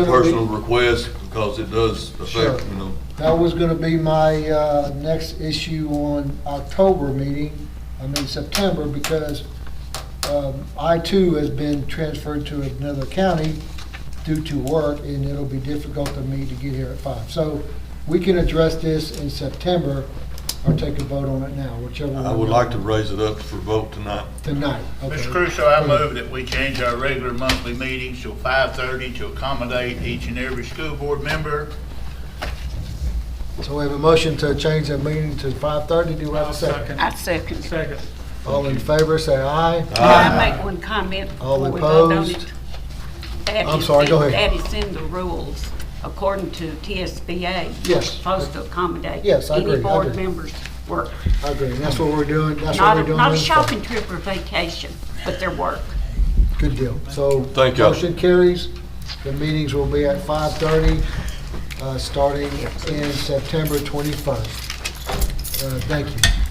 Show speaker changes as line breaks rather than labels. a personal request, because it does
Sure.
affect, you know,
That was gonna be my, uh, next issue on October meeting, I mean September, because, um, I too has been transferred to another county due to work, and it'll be difficult for me to get here at five. So we can address this in September, or take a vote on it now, whichever.
I
one
would
we-
like to raise it up for vote tonight.
Tonight, okay.
Mr. Crusoe, I move that we change our regular monthly meetings to 5:30 to accommodate each and every school board member.
So we have a motion to change the meeting to five-thirty, do we have a second?
I second.
Second.
All in favor, say aye.
Can I make one comment?
All
before we vote on
opposed?
it? That
I'm
is
sorry, go
in-
ahead.
That is in the rules, according to TSBA. We're
Yes.
supposed to accommodate.
Yes, I agree, I
Any board
agree.
members work.
I agree, that's what we're doing, that's what
Not
we're
a,
doing.
not a
moving forward.
shopping trip or vacation, but their work.
Good deal. So.
Thank y'all.
Motion carries. The meetings will be at 5:30, uh, starting in September 21st. Uh, Thank you.